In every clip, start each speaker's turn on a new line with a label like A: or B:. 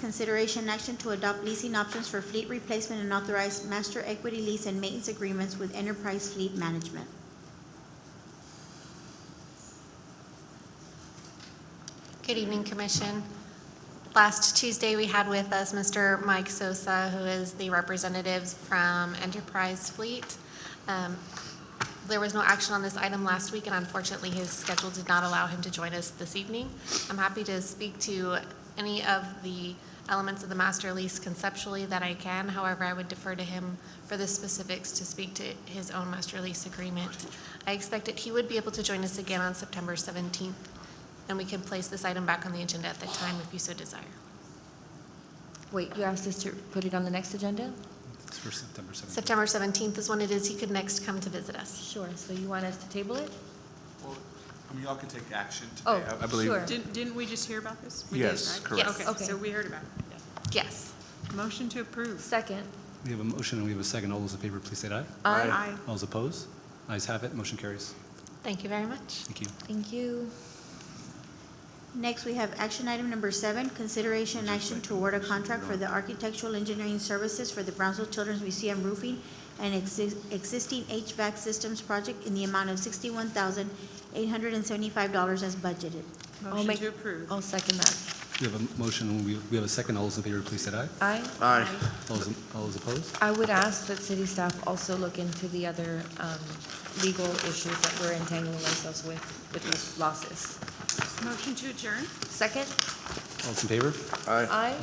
A: Consideration and action to adopt leasing options for fleet replacement and authorize master equity lease and maintenance agreements with Enterprise Fleet Management.
B: Good evening, Commission. Last Tuesday, we had with us Mr. Mike Sosa, who is the representatives from Enterprise Fleet. Um, There was no action on this item last week, and unfortunately, his schedule did not allow him to join us this evening. I'm happy to speak to any of the elements of the master lease conceptually that I can. However, I would defer to him for the specifics to speak to his own master lease agreement. I expect that he would be able to join us again on September 17th, and we can place this item back on the agenda at that time if you so desire.
C: Wait, you asked us to put it on the next agenda?
D: It's for September 17th.
B: September 17th is when it is he could next come to visit us.
C: Sure, so you want us to table it?
E: Well, I mean, y'all can take action
C: Oh,
E: today. I- I believe-
C: sure.
F: Didn't, didn't we just hear about this? We did,
E: Yes,
F: right?
E: correct.
B: Yes.
F: Okay, so we heard about it.
B: Yes.
F: Motion to approve.
C: Second.
D: We have a motion and we have a second. All those in favor, please say aye.
F: Aye.
D: All those opposed? Ayes have it, motion carries.
B: Thank you very much.
D: Thank you.
C: Thank you.
A: Next, we have action item number seven, consideration and action to award a contract for the architectural engineering services for the Brownsville Children's Museum roofing and exi- existing HVAC systems project in the amount of sixty-one thousand eight hundred and seventy-five dollars as budgeted.
C: I'll
F: Motion
C: make-
F: to approve.
C: I'll second that.
D: We have a motion and we we have a second. All those in favor, please say aye.
C: Aye?
E: Aye.
D: All those all those opposed?
C: I would ask that city staff also look into the other um, legal issues that we're entangling ourselves with, with these losses.
F: Motion to adjourn?
C: Second?
D: All those in favor?
C: Aye?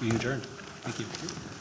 D: We adjourned. Thank you.